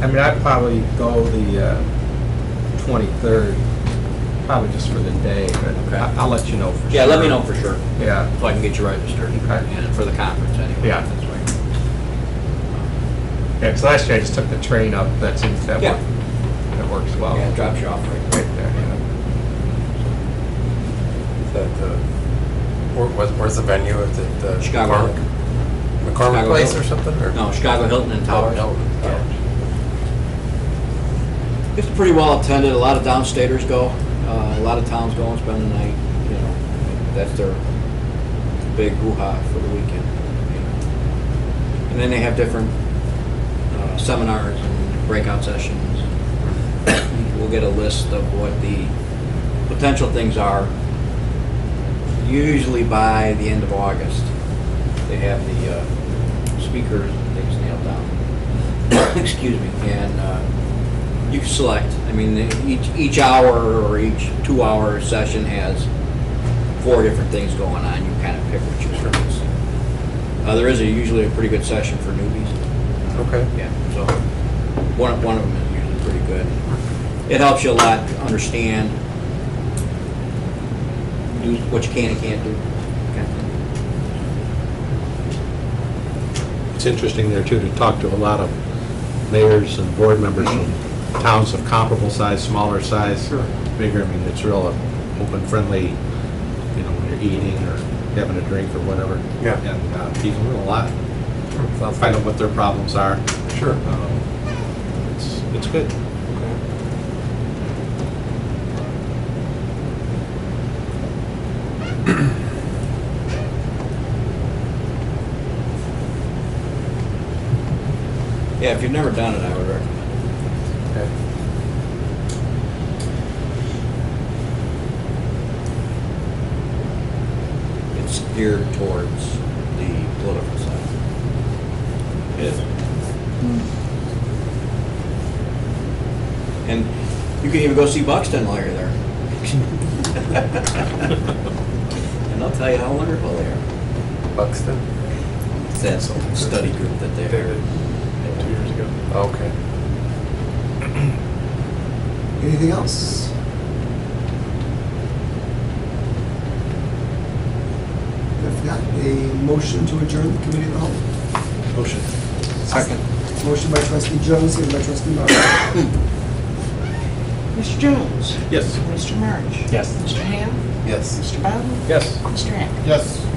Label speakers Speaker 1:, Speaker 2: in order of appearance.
Speaker 1: I mean, I'd probably go the uh, 23rd, probably just for the day, but
Speaker 2: Okay.
Speaker 1: I- I'll let you know for sure.
Speaker 2: Yeah, let me know for sure,
Speaker 1: Yeah,
Speaker 2: so I can get you registered
Speaker 1: Okay.
Speaker 2: and for the conference anyway.
Speaker 1: Yeah.
Speaker 2: That's right.
Speaker 1: yeah, because last year I just took the train up, that seems, that
Speaker 2: Yeah.
Speaker 1: works, that works well.
Speaker 2: Oh, Yeah, it
Speaker 1: Right
Speaker 2: drops you off right
Speaker 1: there, yeah.
Speaker 3: That, uh, where, where's- where's the venue? Is it uh,
Speaker 2: Chicago.
Speaker 3: McCormick-
Speaker 2: Chicago
Speaker 3: McCormick Place
Speaker 2: Hilton.
Speaker 3: or something, or?
Speaker 2: No, Chicago Hilton and
Speaker 3: Oh,
Speaker 2: Towers.
Speaker 3: Hilton.
Speaker 2: Yeah.
Speaker 3: Towers.
Speaker 2: It's pretty well attended, a lot of downstaters go, uh, a lot of towns go and spend the night, you know, that's their big hoo-ha for the weekend. And then they have different uh, seminars and breakout sessions. We'll get a list of what the potential things are. Usually by the end of August, they have the uh, speakers and things nailed down. Excuse me, and uh, you can select. I mean, each, each hour or each two-hour session has four different things going on. You kind of pick what you want. Uh, there is a- usually a pretty good session for newbies.
Speaker 3: Okay.
Speaker 2: Yeah, so one, of- one of them is usually pretty good. It helps you a lot to understand do what you can and can't do. kind of thing.
Speaker 4: It's interesting there too, to talk to a lot of mayors and board members from towns of comparable size, smaller size,
Speaker 2: Sure.
Speaker 4: bigger, I mean, it's real open, friendly, you know, when you're eating or having a drink or whatever.
Speaker 3: Yeah.
Speaker 4: And uh, people learn a lot,
Speaker 3: Sounds
Speaker 4: find out what their problems are.
Speaker 3: good. Sure.
Speaker 4: Um, It's, it's good.
Speaker 2: Yeah, if you've never done it, I would recommend it.
Speaker 3: Okay.
Speaker 2: It's geared towards the political side. It is. And you can even go see Buxton while you're there. And they'll tell you how wonderful they are.
Speaker 3: Buxton?
Speaker 2: It's that study group that they hired.
Speaker 5: two years ago.
Speaker 3: Okay.
Speaker 6: Anything else? If not, a motion to adjourn the committee of the whole.
Speaker 4: Motion.
Speaker 6: Second. Motion by trustee Jones, second by trustee Martin.
Speaker 7: Mr. Jones?
Speaker 4: Yes.
Speaker 7: Mr. March?
Speaker 5: Yes.
Speaker 7: Mr. Ham?
Speaker 3: Yes.
Speaker 7: Mr. Bowden?
Speaker 1: Yes.
Speaker 7: Mr. Hack?
Speaker 1: Yes.